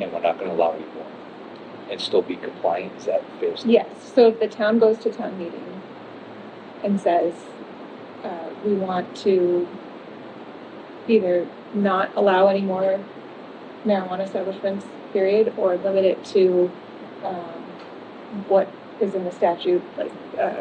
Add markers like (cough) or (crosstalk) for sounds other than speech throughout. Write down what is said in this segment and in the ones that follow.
and we're not gonna allow you more, and still be compliant, is that fair? statement? Yes, so if the town goes to town meeting and says, uh, we want to either not allow any more marijuana establishments, period, or limit it to, um, what is in the statute, like, uh,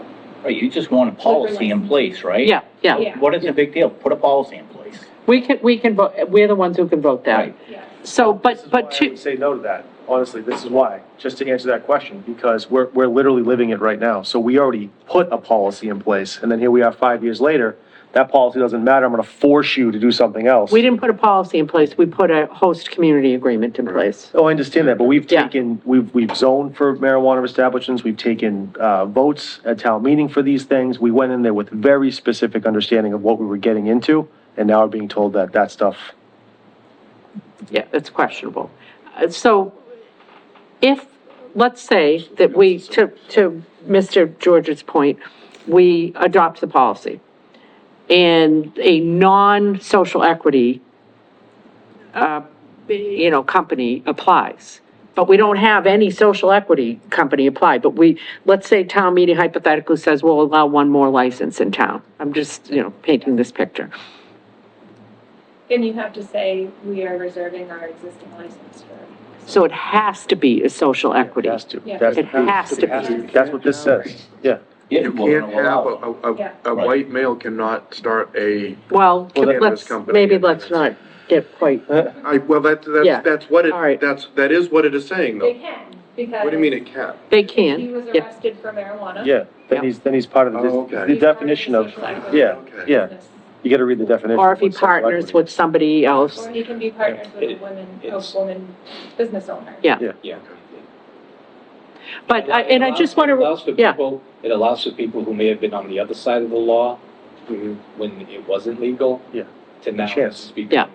Right, you just want a policy in license. place, right? Yeah, yeah. yeah, What is the big deal? Put a policy in place. We can, we can vote, we're the ones who can vote that. Right. yeah. So, This but, is but why I to, would Say no to that, honestly, this is why, just to answer that question, because we're, we're literally living it right now. So we already put a policy in place, and then here we are five years later, that policy doesn't matter, I'm gonna force you to do something else. we didn't put a policy in place, we put a host community agreement in place. Oh, I understand that, but we've Yeah. taken, we've, we've zoned for marijuana establishments, we've taken, uh, votes at town meeting for these things. We went in there with very specific understanding of what we were getting into, and now we're being told that that stuff, Yeah, it's questionable. Uh, So if, let's say that we, to, to Mr. George's point, we adopt the policy and a non-social equity, uh, you know, company applies, but we don't have any social equity company apply, but we, let's say town meeting hypothetically says we'll allow one more license in town. I'm just, you know, painting this picture. Then you have to say, we are reserving our existing license for, So it has to be a social it equity. has to. Yeah. That's- It has to be. That's what this says, (laughs) yeah. Yeah, You well, can't we'll have, allow a, it. a, Yeah. a- a Right. white male cannot start a, Well, Well, that- let's, Cannabis company. maybe let's not get quite, I, well, that, Yeah. that's, that's what All right. it, that's, that is what it is saying they though. can, because. What do you mean it can't? He they can, was yeah, arrested for marijuana. Yeah, then he's, then he's part of Oh, the, okay. the definition of, yeah, yeah, you gotta read the definition. or if he of social partners equity. with somebody else, Or he can be partners with a It- woman, a it's- woman business owner. Yeah. Yeah. but, I- and I just want It allows for to, yeah, people, it allows for people who may have been on the other side of the law when it wasn't legal. Yeah. To now Chance. speak. Yeah.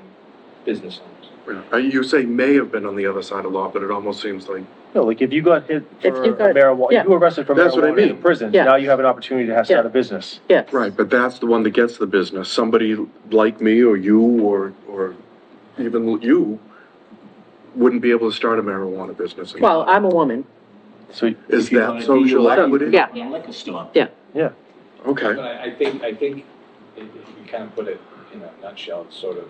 Business owners. Uh, You say may have been on the other side of law, but it almost seems like, No, like if you got hit for you got- marijuana, yeah. you were arrested for That's what I marijuana in mean. prison, Yeah. now you have an opportunity to have start a business. yes. right, but that's the one that gets the business. Somebody like me or you or, or even you wouldn't be able to start a marijuana business. Well, I'm a woman, So, Is If you wanna that be social allowed- equity? Yeah. A Liquor store. Okay. But I, I think, I think, if if you kind of put it in a nutshell, it's sort of,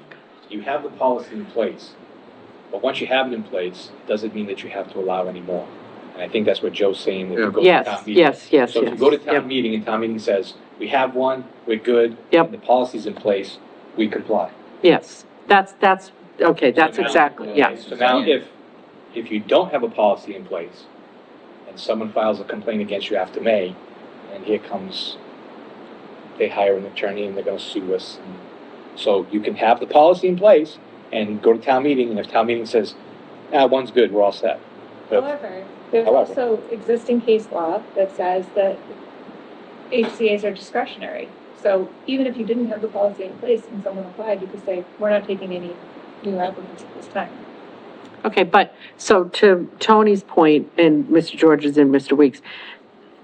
you have the policy in place, but once you have it in place, it doesn't mean that you have to allow any more. And I think that's what Joe's saying, when Yeah. you go to town yes, meeting. yes, yes, So if you go to yes. town meeting and town meeting says, we have one, we're good. Yep. and The policy's in place, we comply. Yes, that's, that's, okay, that's So now- exactly, yeah, So now, if, if you don't have a policy in place, and someone files a complaint against you after May, and here comes, they hire an attorney and they're gonna sue us. and- So you can have the policy in place and go to town meeting, and if town meeting says, ah, one's good, we're all set. But- However, there's However. also existing case law that says that HCA's are discretionary. So even if you didn't have the policy in place and someone applied, you could say, we're not taking any new applicants at this time. okay, but, so to Tony's point, and Mr. George's and Mr. Weeks,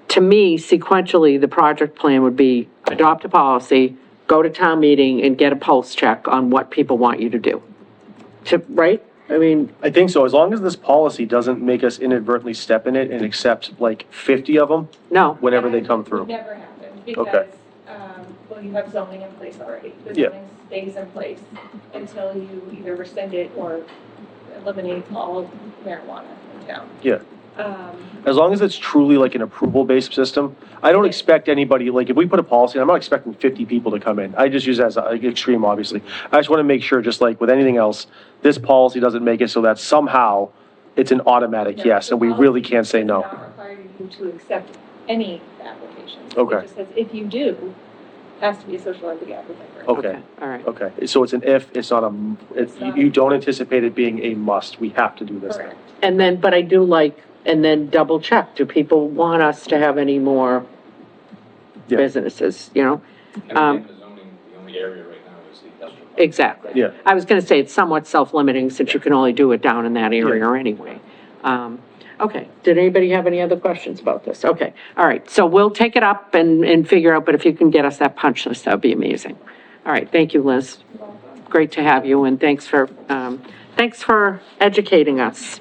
to me, sequentially, the project plan would be adopt a policy, go to town meeting, and get a pulse check on what people want you to do. To, right? I mean, I think so, as long as this policy doesn't make us inadvertently step in it and accept like fifty of them no, whenever they come It through. Never happened because, um, well, you have zoning in place already. The Yeah. zoning stays in place until you either rescind it or eliminate all of marijuana in town. Yeah. Um, As long as it's truly like an approval-based system, I don't expect anybody, like, if we put a policy, I'm not expecting fifty people to come in. I just use that as an extreme, obviously. I just wanna make sure, just like with anything else, this policy doesn't make it so that somehow it's an automatic yes, and we really can't say no. It does not require you to accept any application. It Okay. just says if you do, has to be a social equity applicant. first. Okay. okay, all right. Okay, so it's an if, it's not a, m- it's, you- you don't anticipate it being a must, we have to do this thing. Correct. And then, but I do like, and then double check, do people want us to have any more Yeah. businesses, you know? And again, Um, the zoning, the only area right now is the industrial. park. Exactly. Yeah. I was gonna say it's somewhat self-limiting since you can only do it down in that area anyway. Um, okay, did anybody have any other questions about this? Okay, all right, so we'll take it up and, and figure out, but if you can get us that punch list, that'd be amazing. All right, thank you, Liz. Great to have you and thanks for, um, thanks for educating us.